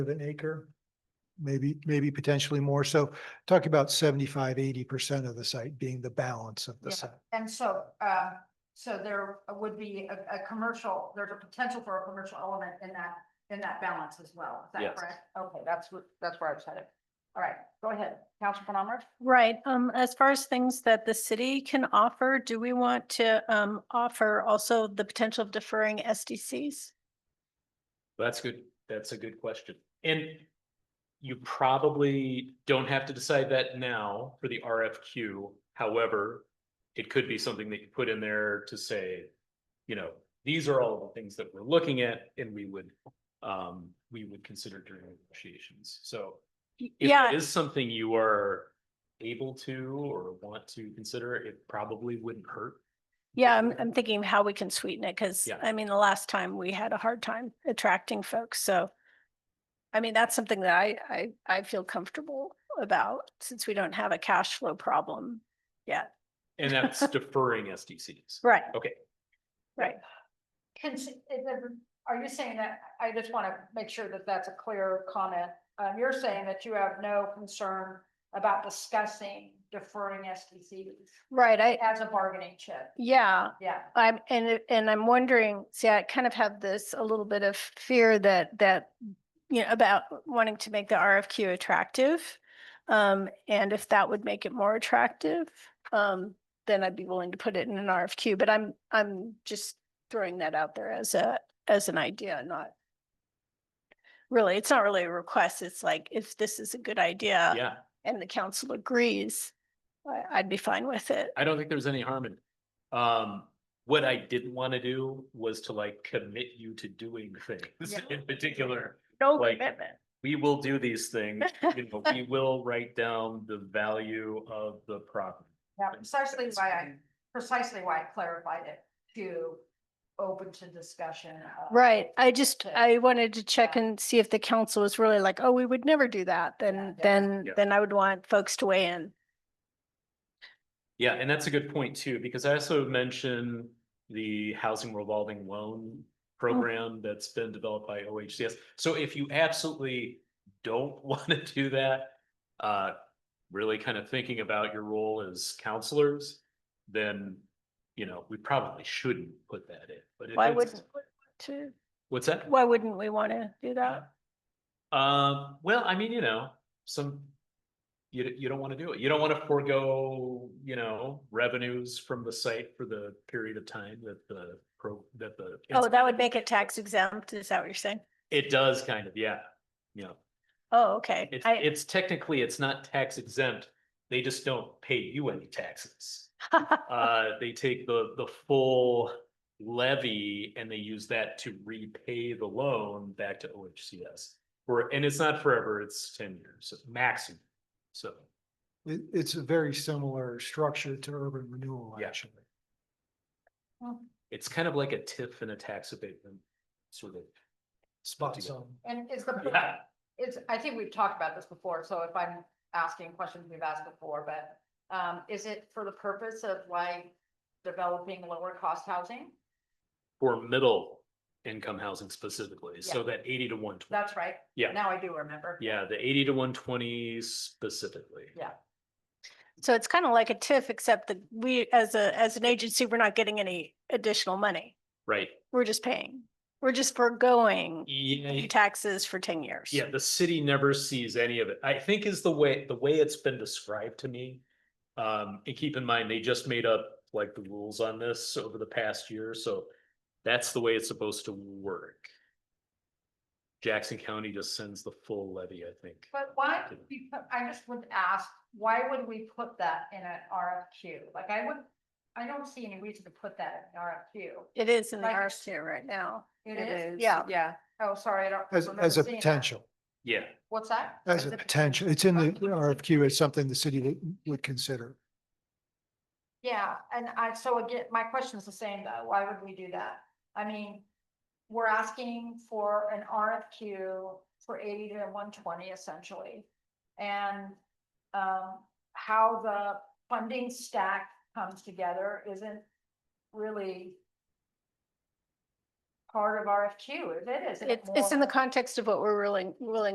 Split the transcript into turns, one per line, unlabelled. of an acre, maybe, maybe potentially more. So talking about 75, 80 percent of the site being the balance of the
Yeah.
site.
And so, uh, so there would be a, a commercial, there's a potential for a commercial element in that, in that balance as well. Is that
Yes.
correct? Okay, that's what, that's where I was headed. All right, go ahead, Councilman Palmer.
Right, um, as far as things that the city can offer, do we want to, um, offer also the potential of deferring SDCs?
That's good. That's a good question. And you probably don't have to decide that now for the RFQ. However, it could be something that you put in there to say, you know, these are all the things that we're looking at and we would um, we would consider during negotiations. So
Y-
if
Yeah,
it is something you are able to or want to consider, it probably wouldn't hurt.
yeah, I'm, I'm thinking of how we can sweeten it, because,
Yeah.
I mean, the last time we had a hard time attracting folks, so. I mean, that's something that I, I, I feel comfortable about, since we don't have a cash flow problem.
And that's deferring SDCs.
Right.
Okay.
Right,
Can, s- is there- are you saying that, I just want to make sure that that's a clear comment. Um, you're saying that you have no concern about discussing deferring SDCs
right, I,
as a bargaining chip.
yeah,
Yeah,
I'm, and, it- and I'm wondering, see, I kind of have this, a little bit of fear that, that, you know, about wanting to make the RFQ attractive. Um, and if that would make it more attractive, um, then I'd be willing to put it in an RFQ, but I'm, I'm just throwing that out there as a, as an idea, not really, it's not really a request. It's like, if this is a good idea
Yeah,
and the council agrees, I, I'd be fine with it.
I don't think there's any harm in it. Um, what I didn't want to do was to like commit you to doing things
Yeah.
in particular.
No
Like-
commitment.
We will do these things, you know, we will write down the value of the property.
yeah, precisely why I, precisely why I clarified it to open to discussion. uh, of-
Right, I just,
to-
I wanted to check
Yeah.
and see if the council was really like, oh, we would never do that, then,
yeah.
then,
Yeah.
then I would want folks to weigh in.
Yeah, and that's a good point too, because I also mentioned the housing revolving loan
Oh.
program that's been developed by OHCS. So if you absolutely don't want to do that, uh, really kind of thinking about your role as counselors, then, you know, we probably shouldn't put that in. But if
Why
it's-
wouldn't, we want to,
What's that?
why wouldn't we want to do that?
Um, well, I mean, you know, some, you, d- you don't want to do it. You don't want to forego, you know, revenues from the site for the period of time that the pro, that the.
Oh, that would make it tax exempt, is that what you're saying?
It does kind of, yeah. You know,
Oh, okay,
it's,
I,
it's technically, it's not tax exempt. They just don't pay you any taxes. Uh, they take the, the full levy and they use that to repay the loan back to OHCS. For, and it's not forever, it's ten years maximum. So,
It, it's a very similar structure to urban renewal,
Yeah.
actually.
it's kind of like a TIF and a tax abatement sort of.
Spot
together.
zone.
And is the,
Yeah,
it's, I think we've talked about this before, so if I'm asking questions we've asked before, but um, is it for the purpose of like developing lower cost housing?
for middle income housing specifically, so
Yeah.
that eighty to one twenty,
That's right.
Yeah.
Now I do remember.
yeah, the eighty to one twenty specifically.
so it's kind of like a TIF, except that we, as a, as an agency, we're not getting any additional money.
Right, E
We're just paying, we're just foregoing
yeah,
taxes for ten years.
Yeah, the city never sees any of it, I think is the way, the way it's been described to me. Um, and keep in mind, they just made up like the rules on this over the past year, so that's the way it's supposed to work. Jackson County just sends the full levy, I think.
But why,
to-
would we put- I just would ask, why would we put that in an RFQ? Like I would, I don't see any reason to put that in an RFQ.
It is in the
Like-
RSU right now.
It is?
Yeah.
Yeah.
Oh, sorry, I don't.
As,
remember
as a
seeing that.
potential,
Yeah,
What's that?
as a potential. It's in the RFQ. It's something the city would- would consider.
Yeah, and I, so again, my question's the same though, why would we do that? I mean, we're asking for an RFQ for eighty to one twenty essentially. And um, how the funding stack comes together isn't really part of RFQ, is it? Is it
It's, it's in the
more-
context of what we're willing, willing